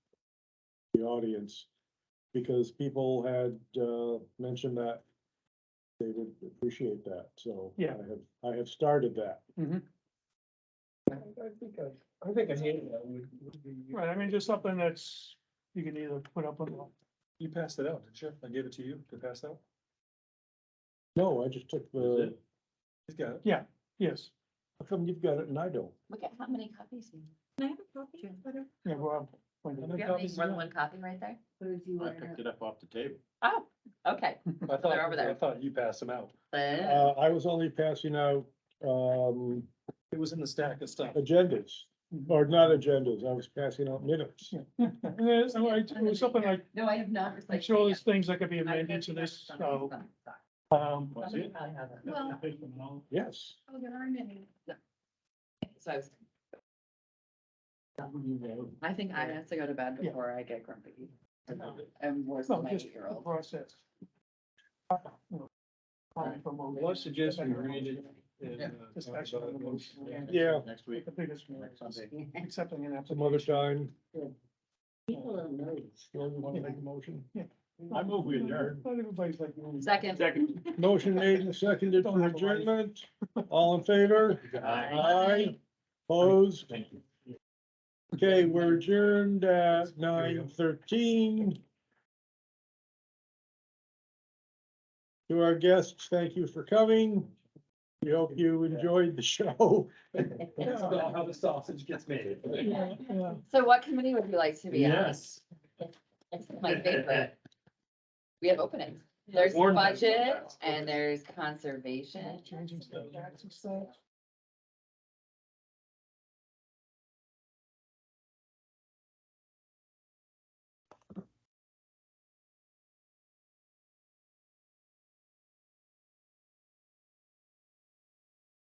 the audience. Because people had, uh, mentioned that they would appreciate that, so. Yeah. I have, I have started that. I I think I, I think an handout would, would be. Right, I mean, just something that's, you can either put up on, the- You passed it out, didn't you? I gave it to you to pass out. No, I just took the, He's got it. yes, how come you've got it and I don't? Look at how many copies. you- Can I have a copy? Sure. Better. yeah, Rob. wait a How minute. many You have copies you more got? than one copy right there? Oh, I picked it up off the table. Oh, okay. I thought, They're over there. I thought you passed them out. Then- Uh, I was only passing out, um, It was in the stack of stuff. agendas, or not agendas, I was passing out minutes. And there's, no, I- it was something like, No, I have not. I'm replaced sure it there's yet. things that could be I think amended to that's this, uh, so, something from- sorry. um, Was Somebody it? probably has it. Well- Yes, Oh, there are many. So I was. I think I have to go to bed Yeah. before I get grumpy. I'm worse than no, my just eight-year-old. process. Well, I suggest we read it. uh, Discussion on the motion. yeah, Next week. The biggest one Next is Sunday. accepting an some other application. time. People don't know. Or you wanna make a motion? I move we adjourn. Not everybody's like. mm. Second. Second. Motion made and seconded for adjournment. All in favor? Aye. Opposed? Thank you. Okay, we're adjourned at nine thirteen. To our guests, thank you for coming. We hope you enjoyed the show. That's about how the sausage gets made. Yeah, yeah. So what committee would you like to be on? Yes. It's my favorite. We have openings. There's Warren- budget and there's conservation. Changing stuff, taxes stuff.